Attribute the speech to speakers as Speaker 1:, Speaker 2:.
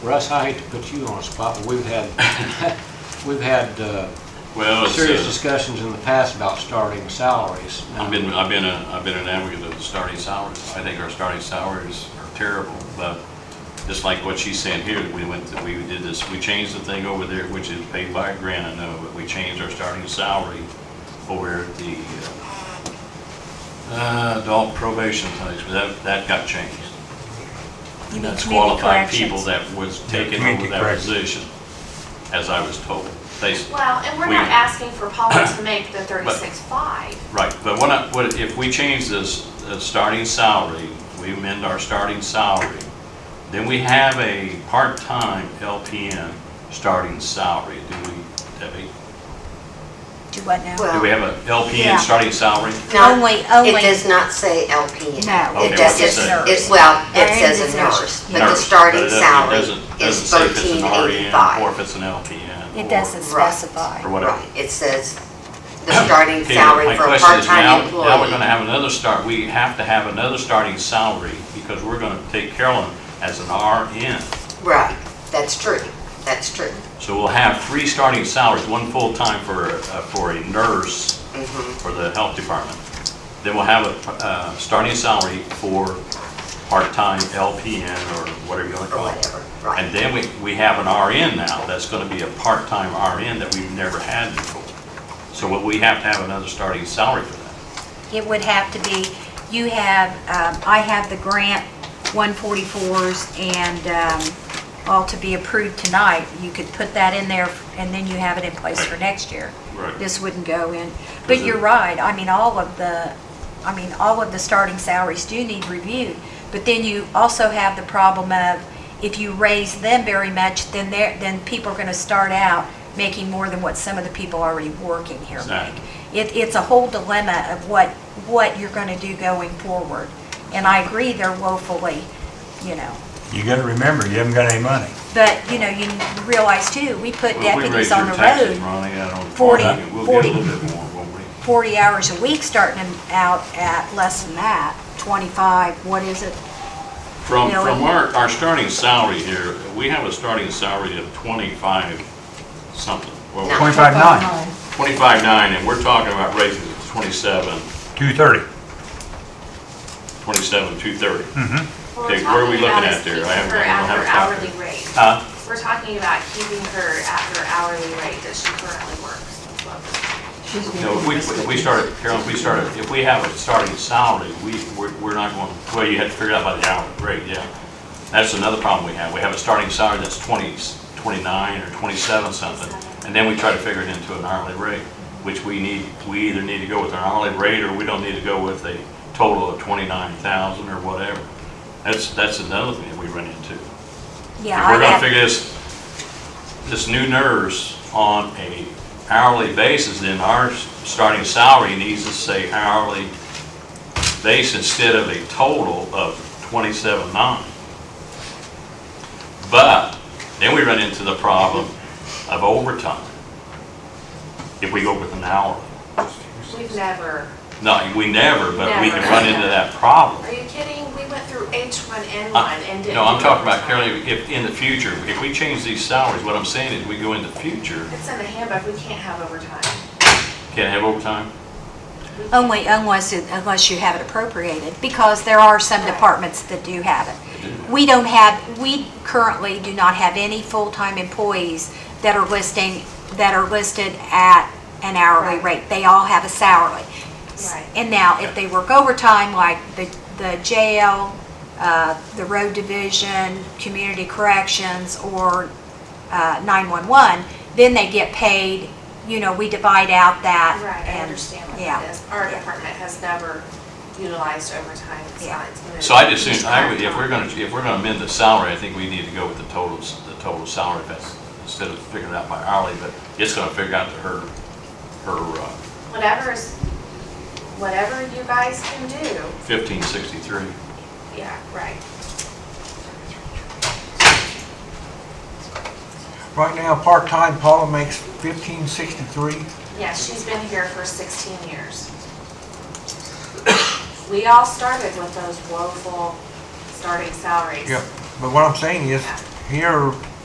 Speaker 1: Russ, I hate to put you on a spot, but we've had, we've had uh,
Speaker 2: Well, it's,
Speaker 1: serious
Speaker 2: uh,
Speaker 1: discussions in the past about starting salaries.
Speaker 2: I've been, I've been a, I've been an advocate of the starting salaries. I think our starting salaries are terrible, but just like what she's saying here, we went, we did this, we changed the thing over there, which is paid by a grant, I know, but we changed our starting salary over at the, uh, uh, adult probation place, but that, that got changed.
Speaker 3: You mean
Speaker 2: That's
Speaker 3: community
Speaker 2: qualified
Speaker 3: corrections.
Speaker 2: people that was taken
Speaker 4: community
Speaker 2: over that
Speaker 4: corrections.
Speaker 2: position, as I was told. They,
Speaker 5: Well, and we're
Speaker 2: We-
Speaker 5: not asking for Paula to make the thirty-six five.
Speaker 2: Right, but what I, what, if we change this, uh, starting salary, we amend our starting salary, then we have a part-time LPN starting salary, do we, Debbie?
Speaker 3: Do what now?
Speaker 2: Do we
Speaker 6: Well,
Speaker 2: have a
Speaker 3: Yeah.
Speaker 2: LPN starting salary?
Speaker 6: no,
Speaker 3: Only-
Speaker 6: it
Speaker 3: only-
Speaker 6: does not say LPN.
Speaker 3: No.
Speaker 2: Okay,
Speaker 6: It
Speaker 2: what's it
Speaker 6: doesn't,
Speaker 2: say?
Speaker 6: it's, well, it
Speaker 3: And
Speaker 6: says
Speaker 3: it's
Speaker 6: a
Speaker 3: nurse.
Speaker 6: nurse, but the
Speaker 2: Nurse,
Speaker 6: starting
Speaker 2: it doesn't- it
Speaker 6: salary
Speaker 2: doesn't-
Speaker 6: is
Speaker 2: doesn't say if it's
Speaker 6: thirteen
Speaker 2: an RN Or
Speaker 6: eighty-five.
Speaker 2: if it's an LPN.
Speaker 3: It
Speaker 2: or-
Speaker 3: doesn't
Speaker 6: right.
Speaker 3: specify.
Speaker 2: Or whatever.
Speaker 6: Right, it says the starting
Speaker 2: Okay,
Speaker 6: salary
Speaker 2: My
Speaker 6: for a
Speaker 2: question is now, now
Speaker 6: part-time
Speaker 2: we're gonna
Speaker 6: employee.
Speaker 2: have another start, we have to have another starting salary, because we're gonna take Carolyn as an RN.
Speaker 6: Right, that's true, that's true.
Speaker 2: So we'll have three starting salaries, one full-time for, uh, for a nurse
Speaker 6: Mm-hmm.
Speaker 2: for the health department. Then we'll have a, uh, starting salary for part-time LPN or whatever you want to
Speaker 6: Or
Speaker 2: call it.
Speaker 6: whatever, right.
Speaker 2: And then we, we have an RN now, that's gonna be a part-time RN that we've never had before. So what we have to have another starting salary for that.
Speaker 3: It would have to be, you have, um, I have the grant 144s and um, all to be approved tonight. You could put that in there and then you have it in place for next year.
Speaker 2: Right.
Speaker 3: This wouldn't go in.
Speaker 2: Is
Speaker 3: But
Speaker 2: it-
Speaker 3: you're right, I mean, all of the, I mean, all of the starting salaries do need reviewed. But then you also have the problem of if you raise them very much, then they're, then people are going to start out making more than what some of the people already working here make.
Speaker 2: Exactly.
Speaker 3: It, it's a whole dilemma of what, what you're going to do going forward. And I agree, they're woefully, you know,
Speaker 4: You gotta remember, you haven't got any money.
Speaker 3: but, you know, you realize too, we put
Speaker 2: Well, if we raise
Speaker 3: deputies on
Speaker 2: your
Speaker 3: the
Speaker 2: taxes,
Speaker 3: road
Speaker 2: Ronnie, I don't.
Speaker 3: 40,
Speaker 2: We'll get
Speaker 3: 40.
Speaker 2: a little bit more, won't we?
Speaker 3: 40 hours a week, starting them out at less than that, 25, what is it?
Speaker 2: From,
Speaker 3: No,
Speaker 2: from
Speaker 3: it-
Speaker 2: our, our starting salary here, we have a starting salary of 25 something. Well,
Speaker 6: No.
Speaker 4: Twenty-five nine,
Speaker 2: 25.9, and we're talking about raising it to 27,
Speaker 4: two thirty.
Speaker 2: 27, 230. Okay,
Speaker 5: What
Speaker 2: where are we
Speaker 5: we're
Speaker 2: looking
Speaker 5: talking about is
Speaker 2: at there?
Speaker 5: keeping
Speaker 2: I haven't-
Speaker 5: her
Speaker 2: I don't
Speaker 5: at
Speaker 2: have a
Speaker 5: her
Speaker 2: copy.
Speaker 5: hourly rate.
Speaker 2: Huh?
Speaker 5: We're talking about keeping her at her hourly rate that she currently works. That's what we're-
Speaker 2: No, if we, if we started, Carol, if we started, if we have a starting salary, we, we're we're not going, well, you have to figure it out by the hour, rate, yeah. That's another problem we have. We have a starting salary that's 20, 29 or 27 something, and then we try to figure it into an hourly rate, which we need, we either need to go with an hourly rate or we don't need to go with a total of 29,000 or whatever. That's, that's another thing that we run into. If we're
Speaker 3: Yeah, I
Speaker 2: gonna
Speaker 3: have,
Speaker 2: figure this, this new nurse on a hourly basis, then our s- starting salary needs to say hourly base instead of a total of twenty-seven nine. But then we run into the problem of overtime. If we go with an hourly.
Speaker 5: We've never,
Speaker 2: No, we never, but we can
Speaker 5: Never.
Speaker 2: run into that problem.
Speaker 5: are you kidding? We went through H1N1
Speaker 2: Uh,
Speaker 5: and didn't.
Speaker 2: No, I'm
Speaker 5: do
Speaker 2: talking about,
Speaker 5: overtime.
Speaker 2: Carol, if, in the future, if we change these salaries, what I'm saying is we go in the future,
Speaker 5: It's in the handbook. We can't have overtime.
Speaker 2: can't have overtime?
Speaker 3: only unless, it- unless you have it appropriated, because there are some departments that do have it. We don't have, we currently do not have any full-time employees that are listing, that are listed at an hourly
Speaker 5: Right.
Speaker 3: rate. They all have a salary.
Speaker 5: Right.
Speaker 3: And now, if they work overtime, like the, the jail, uh, the road division, community corrections, or uh, 911, then they get paid, you know, we divide out that.
Speaker 5: Right, I
Speaker 3: and-
Speaker 5: understand what
Speaker 3: yeah.
Speaker 5: that is. Our department has never utilized overtime. It's
Speaker 3: Yeah.
Speaker 5: not. it's been-
Speaker 2: So I just think, I would, if we're gonna, if we're gonna amend the salary, I think we need to go with the totals, the total salary, that's, instead of figuring it out by hourly, but it's gonna figure out to her, her uh,
Speaker 5: Whatever is, whatever you guys can do,
Speaker 2: fifteen sixty-three.
Speaker 5: yeah, right.
Speaker 7: Right now, part-time Paula makes fifteen sixty-three.
Speaker 5: Yeah, she's been here for 16 years. We all started with those woeful starting salaries.
Speaker 7: Yeah, but what I'm saying is, here